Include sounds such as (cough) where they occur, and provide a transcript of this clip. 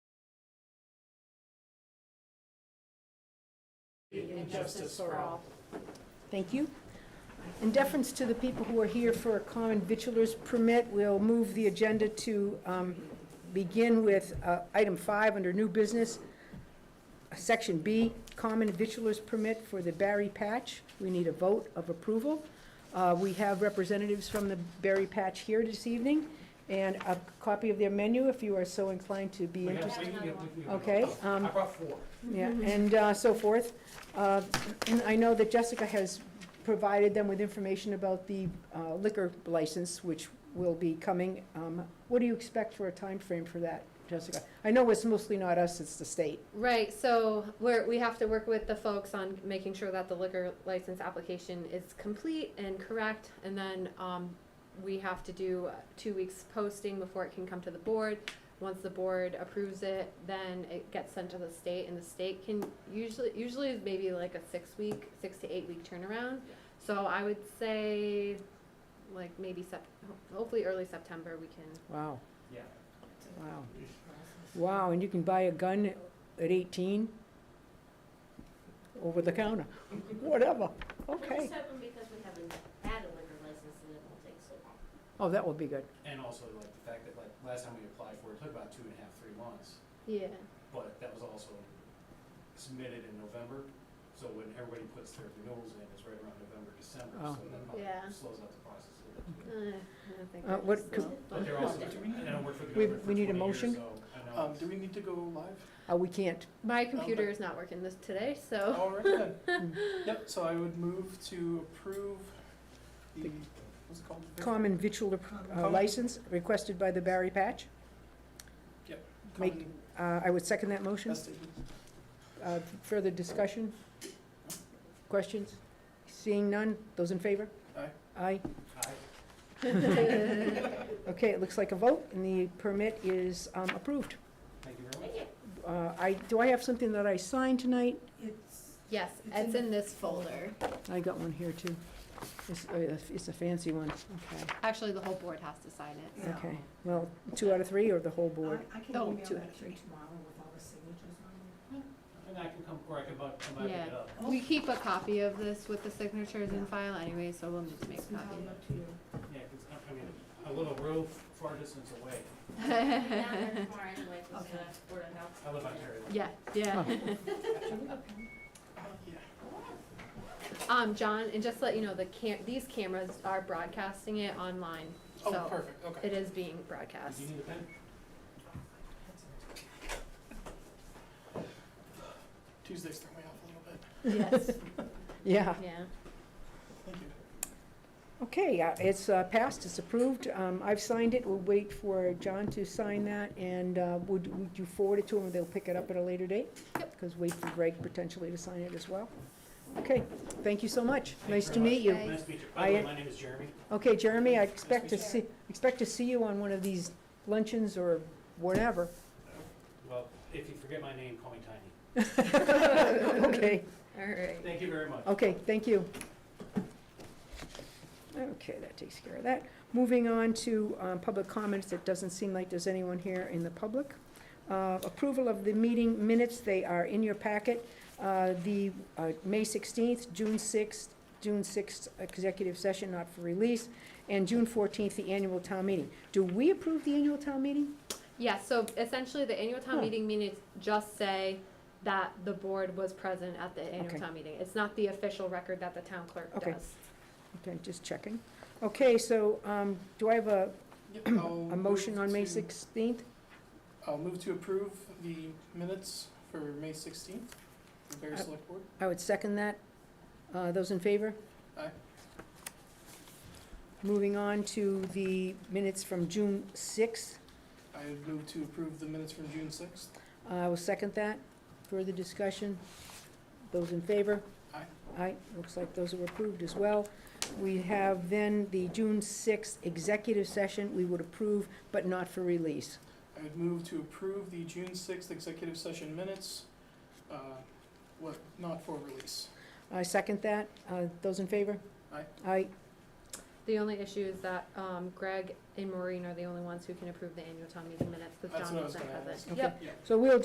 and justice for all. Thank you. In deference to the people who are here for a common vitulers permit, we'll move the agenda to um, begin with uh, item five under new business, section B, common vitulers permit for the Barry Patch. We need a vote of approval. Uh, We have representatives from the Barry Patch here this evening, and a copy of their menu if you are so inclined to be We have- interested. we- we- we- we- Okay, I um, brought four. yeah, and uh, so forth. Uh, And I know that Jessica has provided them with information about the uh, liquor license, which will be coming. Um, What do you expect for a time frame for that, Jessica? I know it's mostly not us, it's the state. Right, so we're, we have to work with the folks on making sure that the liquor license application is complete and correct. And then, um, we have to do uh, two weeks posting before it can come to the board. Once the board approves it, then it gets sent to the state and the state can usually, usually is maybe like a six week, six to eight week turnaround. So I would say like maybe Sep- ho- hopefully early September we can Wow, Yeah. wow. Wow, and you can buy a gun at 18 over the counter, whatever, We'll okay. just have them because we haven't had a liquor license and it won't take so long. Oh, that will be good. And also like the fact that like last time we applied for it, it took about two and a half, three months, Yeah. but that was also submitted in November. So when everybody puts their renewals in, it's right around November, December, Oh. Hmm. so that Yeah. probably slows out the process a little bit. Uh, too. I don't think Uh, we're what just could- slow. But they're also, and I worked for the Oh. We- government we for need a twenty motion? years, so I know. Um, do we need to go live? Uh, We can't, My computer is not working this today, so Oh. Oh. (laughs) All right (laughs) then. Yep, so I would move to approve the, what's it called? Vic- common vitular uh, Common- license requested by the Barry Patch. make- common Uh, I would second that motion. vested- Uh, Further discussion? Questions? Seeing none, those in favor? Aye. Aye. I- Okay, it looks like a vote, and the permit is um, approved. Thank you very Thank much. you. Uh, I, do I have something that I signed tonight? (laughs) yes, it's in this folder. I got one here, too. It's, uh, it's a fancy one, okay. Actually, the whole board has to sign it. so- Okay, well, two out of three or the whole board? I I can Oh, email two that to actually. you tomorrow with all the signatures on it. And I can come, or I can bu- come back and pick it Yeah. up. We keep a copy of this with the signatures in file anyway, so we'll need to make a I'll (laughs) copy. email it to you. Yeah, 'cause I- I mean, a little road far distance away. We'll be down there tomorrow anyway, 'cause, Okay. uh, Board of Health. I live on Terry Lane. Yeah, yeah. (laughs) Um, John, and just to let you know, the cam, these cameras are broadcasting it online, Oh, so perfect, okay. it is being Did broadcast. you need a pen? Tuesdays throw me off a little bit. Yes, Yeah, yeah. Thank you. okay, uh, it's uh, passed, it's approved. Um, I've signed it, we'll wait for John to sign that, and uh, would would you forward it to him, they'll pick it up at a later date? Yep. Because wait for Greg potentially to sign it as well. Okay, thank you so much. Thank you Nice very to meet you. Thank- Nice to meet you. By the I- way, my name is Jeremy. Okay, Jeremy, I expect to Nice see, expect to see you on one of these luncheons or whatever. (laughs) Well, if you forget my name, call me Tiny. Okay, All right. Thank you very much. okay, thank you. Okay, that takes care of that. Moving on to um, public comments, it doesn't seem like there's anyone here in the public. Uh, Approval of the meeting minutes, they are in your packet. Uh, The uh, May 16th, June 6th, June 6th executive session not for release, and June 14th, the annual town meeting. Do we approve the annual town meeting? Yeah, so essentially, the annual Huh. town meeting minutes just say that the board was present at the Okay. annual town meeting. It's not the official record that the town clerk Okay. does. Okay, just checking. Okay, so um, do I have a, Yep, I'll (clears throat) a motion move on May to- 16th? I'll move to approve the minutes for May sixteenth, the Barry Uh, Select Board. I would second that. Uh, Those in favor? Aye. Moving on to the minutes from June 6th. I would move to approve the minutes from June sixth. Uh, I will second that. Further discussion? Those in favor? Aye. Aye, looks like those are approved as well. We have then the June 6th executive session we would approve, but not for release. I would move to approve the June sixth executive session minutes, uh, what, not for release. I second that. Uh, Those in favor? Aye. Aye. The only issue is that um, Greg and Maureen are the only ones who can approve the annual town meeting minutes, because That's John what I was wasn't gonna present. ask. Okay. Yep. Yeah. So we'll